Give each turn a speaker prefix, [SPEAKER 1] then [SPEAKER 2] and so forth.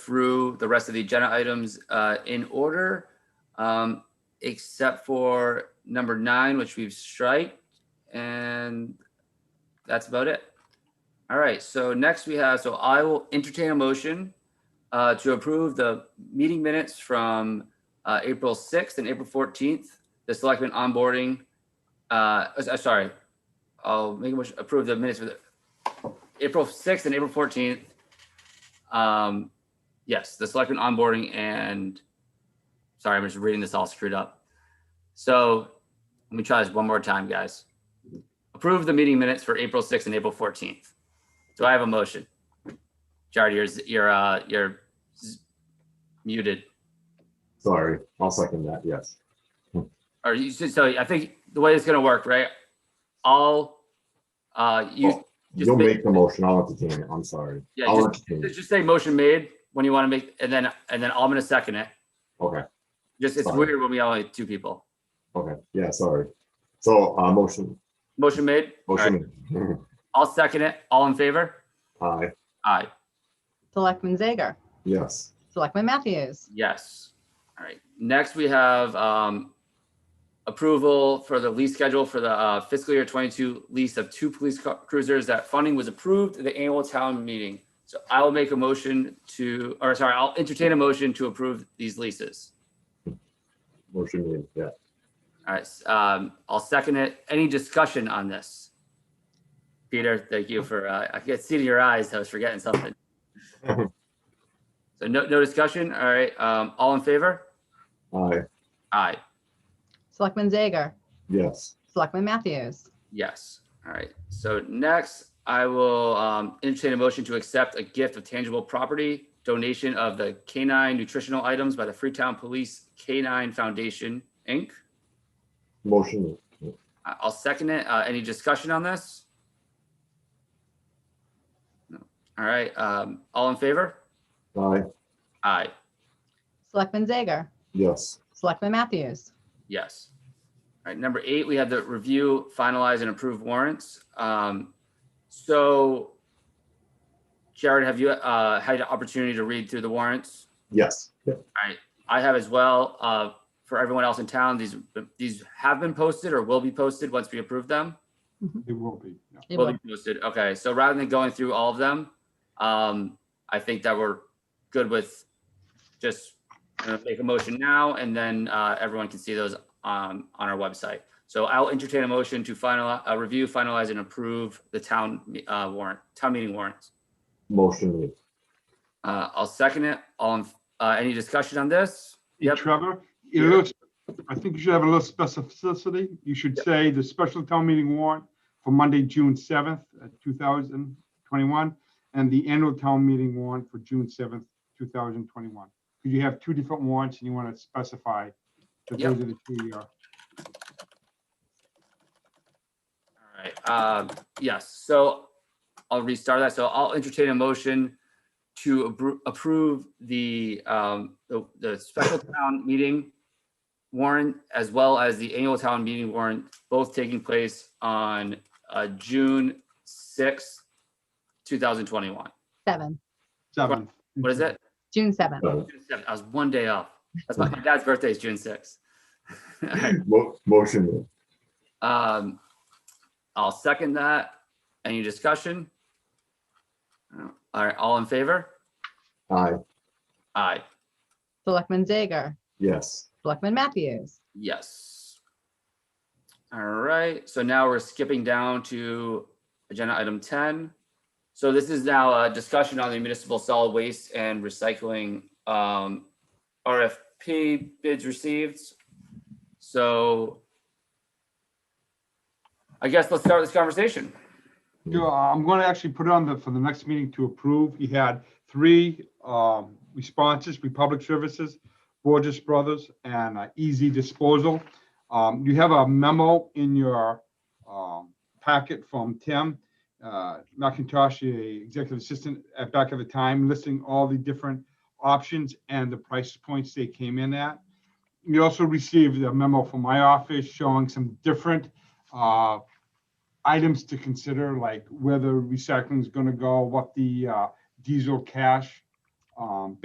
[SPEAKER 1] through the rest of the agenda items uh, in order, um, except for number nine, which we've striked, and that's about it. All right, so next we have, so I will entertain a motion uh, to approve the meeting minutes from uh, April 6th and April 14th, the selectmen onboarding, uh, s- uh, sorry, I'll make a motion, approve the minutes for the April 6th and April 14th. Um, Yes, the selectmen onboarding and, sorry, I'm just reading this all screwed up. So let me try this one more time, guys. Approve the meeting minutes for April 6th and April 14th. Do I have a motion? Jared, you're, z- you're, uh, you're z- muted.
[SPEAKER 2] Sorry, I'll second that, yes.
[SPEAKER 1] Or you, should- so I think the way it's gonna work, right? I'll, uh, you, Just
[SPEAKER 2] You'll
[SPEAKER 1] make-
[SPEAKER 2] make the motion, I'll entertain it, I'm sorry.
[SPEAKER 1] yeah,
[SPEAKER 2] I'll
[SPEAKER 1] just,
[SPEAKER 2] entertain it,
[SPEAKER 1] just say motion made when you wanna make, and then, and then I'm gonna second it.
[SPEAKER 2] okay,
[SPEAKER 1] Just, it's
[SPEAKER 2] Fine.
[SPEAKER 1] weird when we only have two people.
[SPEAKER 2] okay, yeah, sorry. So, uh, motion,
[SPEAKER 1] Motion made? All right.
[SPEAKER 2] motion,
[SPEAKER 1] I'll second it. All in favor?
[SPEAKER 2] aye,
[SPEAKER 1] Aye,
[SPEAKER 3] Selectman Zager.
[SPEAKER 2] yes,
[SPEAKER 3] Selectman Matthews.
[SPEAKER 1] yes. All right. Next, we have um approval for the lease schedule for the uh, fiscal year 22 lease of two police cu- cruisers. That funding was approved at the annual town meeting. So I will make a motion to, or sorry, I'll entertain a motion to approve these leases.
[SPEAKER 2] motion made, yeah.
[SPEAKER 1] All right, s- um, I'll second it. Any discussion on this? Peter, thank you for, uh, I could see to your eyes, I was forgetting something. So no, no discussion, all right, um, all in favor?
[SPEAKER 2] Aye,
[SPEAKER 1] Aye,
[SPEAKER 3] Selectman Zager.
[SPEAKER 2] yes,
[SPEAKER 3] Selectman Matthews.
[SPEAKER 1] yes, all right. So next, I will, um, entertain a motion to accept a gift of tangible property donation of the K-9 nutritional items by the Freetown Police K-9 Foundation, Inc.
[SPEAKER 2] motion,
[SPEAKER 1] I- I'll second it. Uh, any discussion on this? No. All right, um, all in favor?
[SPEAKER 2] aye,
[SPEAKER 1] Aye,
[SPEAKER 3] Selectman Zager.
[SPEAKER 2] yes,
[SPEAKER 3] Selectman Matthews.
[SPEAKER 1] yes. All right, number eight, we have the review, finalize and approve warrants. Um, so Jared, have you, uh, had an opportunity to read through the warrants?
[SPEAKER 2] yes,
[SPEAKER 1] I have as well. Uh, for everyone else in town, these, these have been posted or will be posted once we approve them.
[SPEAKER 4] It will be, yeah.
[SPEAKER 3] It
[SPEAKER 1] will
[SPEAKER 3] will-
[SPEAKER 1] be posted. Okay, so rather than going through all of them, um, I think that we're good with just uh, make a motion now and then, uh, everyone can see those, um, on our website. So I'll entertain a motion to final, uh, review, finalize and approve the town, uh, warrant, town meeting warrants.
[SPEAKER 2] motion made,
[SPEAKER 1] Uh, I'll second it. All, in- uh, any discussion on this?
[SPEAKER 4] Hey,
[SPEAKER 1] Yep.
[SPEAKER 4] Trevor, you
[SPEAKER 1] Yeah.
[SPEAKER 4] know, I think you should have a little specificity. You should say the special town meeting warrant for Monday, June seventh, uh, two thousand twenty-one, and the annual town meeting warrant for June seventh, two thousand twenty-one. Because you have two different warrants and you want to specify that
[SPEAKER 1] Yep.
[SPEAKER 4] those are the two, uh,
[SPEAKER 1] All right, uh, yes, so I'll restart that. So I'll entertain a motion to appro- approve the, um, the, the special town meeting warrant as well as the annual town meeting warrant, both taking place on, uh, June sixth, two thousand twenty-one.
[SPEAKER 3] Seven.
[SPEAKER 4] seventh.
[SPEAKER 1] What is it?
[SPEAKER 3] June 7th.
[SPEAKER 2] Done.
[SPEAKER 1] June 7th. I was one day off. That's my, my dad's birthday is June sixth.
[SPEAKER 2] Mo- motion made,
[SPEAKER 1] Um, I'll second that. Any discussion? No. All right, all in favor?
[SPEAKER 2] aye,
[SPEAKER 1] Aye,
[SPEAKER 3] Selectman Zager.
[SPEAKER 2] yes,
[SPEAKER 3] Selectman Matthews.
[SPEAKER 1] yes. All right, so now we're skipping down to agenda item ten. So this is now a discussion on the municipal solid waste and recycling um RFP bids received. So I guess let's start this conversation.
[SPEAKER 4] Yeah, uh, I'm going to actually put it on the, for the next meeting to approve. You had three um, responses, Republic Services, Borges Brothers, and uh, Easy Disposal. Um, You have a memo in your um, packet from Tim uh, McIntosh, the Executive Assistant, at back of the time, listing all the different options and the price points they came in at. You also received a memo from my office showing some different uh, items to consider, like whether recycling is going to go, what the uh, diesel cash um,